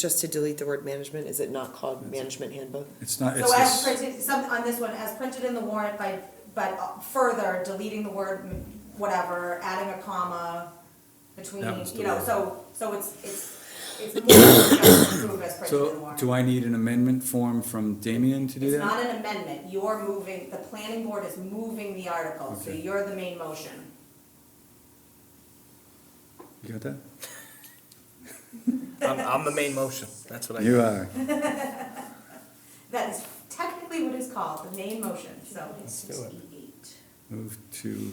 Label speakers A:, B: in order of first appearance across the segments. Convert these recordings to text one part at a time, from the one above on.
A: just to delete the word management, is it not called management handbook?
B: It's not, it's
C: So as
B: this,
C: printed, some, on this one, as printed in the warrant by, but further deleting the word m- whatever, adding a comma between,
B: That was the
C: you know,
B: word.
C: so, so it's, it's, it's more than just approve as printed in the
B: so
C: warrant.
B: do I need an amendment form from Damien to do
C: It's
B: that?
C: not an amendment, you're moving, the planning board is moving the article, so
B: Okay.
C: you're the main motion.
B: You got that?
D: I'm, I'm the main motion, that's what I.
B: You are.
C: That is technically what is called, the main motion, so.
D: do it.
B: Move to,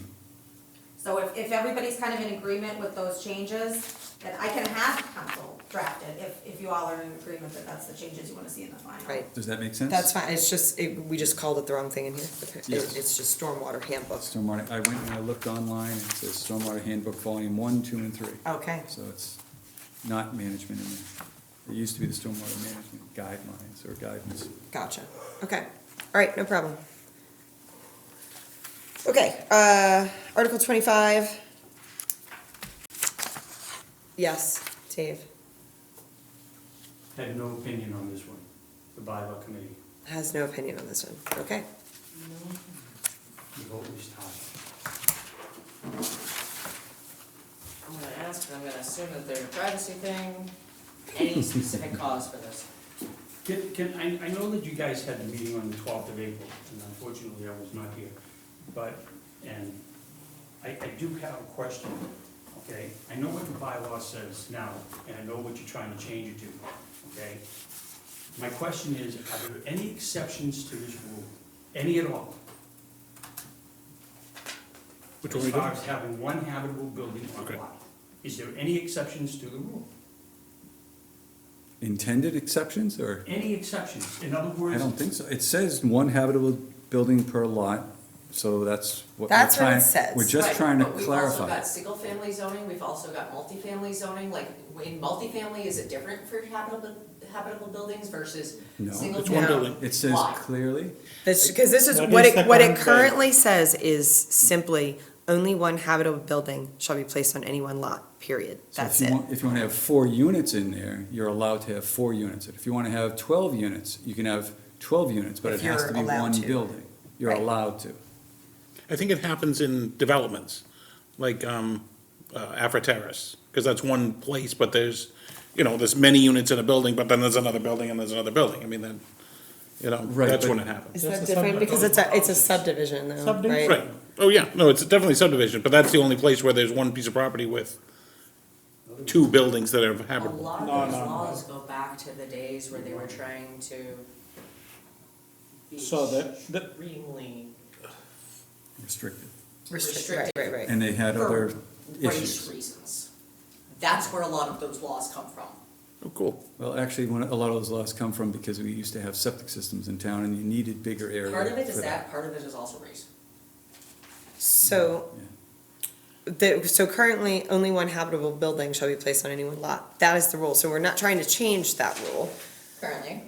C: So if, if everybody's kind of in agreement with those changes, then I can have council draft it if, if you all are in agreement that that's the changes you wanna see in the final.
A: Right,
B: does that make sense?
A: that's fine, it's just, it, we just called it the wrong thing in here, Okay.
B: Yes.
A: It- it's just stormwater handbook.
B: Stormwater, I went and I looked online, and it says Stormwater Handbook Volume One, Two, and Three.
A: Oh, Okay,
B: So it's not management in there. It used to be the Stormwater Management Guidelines or Guidance.
A: gotcha, okay, all right, no problem. Okay, uh, Article twenty-five. Yes, Dave,
E: Have no opinion on this one, the bylaw committee,
A: has no opinion on this one, okay,
E: the vote was tied.
F: I'm gonna ask, and I'm gonna assume that there's a privacy thing, any specific cause for this?
E: Can, can, I, I know that you guys had the meeting on the twelfth of April, and unfortunately I was not here, but, and I, I do have a question, okay? I know what the bylaw says now, and I know what you're trying to change it to, okay? My question is, are there any exceptions to this rule, any at all?
D: Which one we
E: As
D: do?
E: far as having one habitable building on
D: Okay.
E: a lot, is there any exceptions to the rule?
B: Intended exceptions, or?
E: Any exceptions, in other words?
B: I don't think so. It says one habitable building per lot, so that's what. we're
A: That's what it
B: trying-
A: says.
B: We're just
F: Right,
B: trying to
F: but We've also
B: clarify.
F: got single-family zoning, we've also got multifamily zoning, like, in multifamily, is it different for habitable, habitable buildings versus
B: No.
F: single
D: It's one
F: family?
D: building.
B: It says clearly,
A: that's, cause this is,
D: That
A: what
D: is
A: it,
D: the
A: what it
D: current thing.
A: currently says is simply, only one habitable building shall be placed on any one lot, period,
B: so if
A: that's
B: you
A: it.
B: want, if you wanna have four units in there, you're allowed to have four units. If you wanna have twelve units, you can have twelve units, but
A: If
B: it has
A: you're
B: to be
A: allowed
B: one
A: to.
B: building. You're
A: Right.
B: allowed to.
G: I think it happens in developments, like um, uh, Afra Terrace, because that's one place, but there's, you know, there's many units in a building, but then there's another building and there's another building. I mean, then, you know,
B: Right,
G: that's
B: but-
G: when it happens.
A: Is that
D: a
A: different?
D: subdivision.
A: Because it's a, it's a subdivision though, right?
D: Subdivision.
G: Right. Oh, yeah. No, it's definitely subdivision, but that's the only place where there's one piece of property with two buildings that are
F: A
G: habitable.
F: lot of those laws go back to the days where they were trying to be
D: So that- that-
F: extremely
B: Restricted.
A: Restricted, right, right, right.
B: And they had other
F: for race
B: issues.
F: reasons. That's where a lot of those laws come from.
G: Oh, cool.
B: Well, actually, one, a lot of those laws come from because we used to have septic systems in town and you needed bigger area.
F: Part of it
B: for
F: is that, part of it is also race.
A: So, the, so currently, only one habitable building shall be placed on any one lot. That is the rule, so we're not trying to change that rule.
F: currently.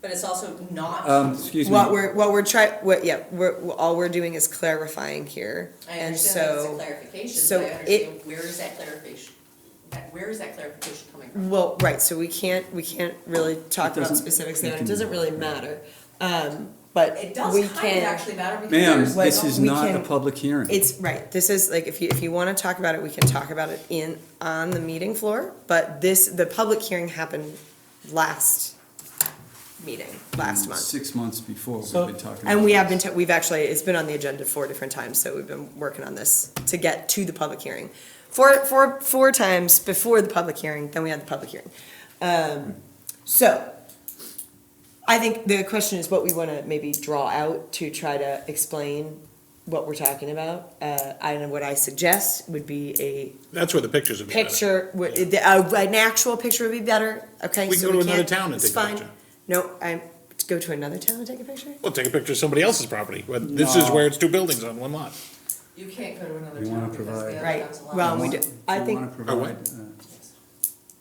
F: But it's also not.
B: Um, excuse me.
A: What we're, what we're try, what, yeah, we're, all we're doing is clarifying here.
F: I
A: And
F: understand that it's a
A: so,
F: clarification,
A: so
F: but I
A: it-
F: understand where is that clarification, that, where is that clarification coming from?
A: well, right, so we can't, we can't really talk
B: It
A: about
B: doesn't-
A: specifics
B: we
A: there, it
B: can-
A: doesn't really matter. Um, but
F: It does
A: we
F: kind of
A: can-
F: actually matter because
B: Ma'am,
F: there's.
B: this
A: Well,
B: is
A: we
B: not a
A: can-
B: public hearing.
A: It's, right, this is like, if you, if you wanna talk about it, we can talk about it in, on the meeting floor, but this, the public hearing happened last meeting,
B: Mm,
A: last month.
B: Six months before, we've
D: So-
B: been talking.
A: And
B: about
A: we have
B: this.
A: been, ta- we've actually, it's been on the agenda four different times, so we've been working on this to get to the public hearing. Four, four, four times before the public hearing, then we had the public hearing. Um, so, I think the question is what we wanna maybe draw out to try to explain what we're talking about. Uh, I know what I suggest would be a
G: That's where the pictures would be better.
A: picture, would- the- uh, an actual picture would be better, okay?
G: We
A: so
G: go to another
A: can't-
G: town and
A: it's
G: take a
A: fine.
G: picture.
A: No, I, go to another town and take a picture?
G: Well, take a picture of somebody else's property, but this is
B: No.
G: where it's two buildings on one lot.
F: You can't go to another
B: We wanna
F: town because the
B: provide-
F: other
A: Right.
F: town's allowed.
A: Well, we do-
B: want-
A: I
B: we
A: think-
B: wanna
G: Oh, what?
B: provide, uh,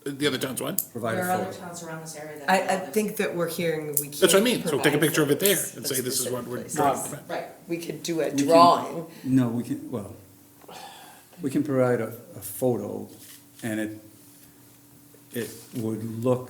G: Uh, The other town's what?
B: Provide
F: There are
B: a
F: other
B: photo.
F: towns around this area that.
A: I, I
F: allow this.
A: think that we're hearing we can't.
G: That's what I mean. So take a
A: provide
G: picture of it there
A: photos
G: and
A: of
G: say this is what we're
A: specific
G: drawing.
A: places.
F: Right,
A: We could do a
B: We can-
A: drawing,
B: No, we can, well, we can provide a, a photo and it, it would look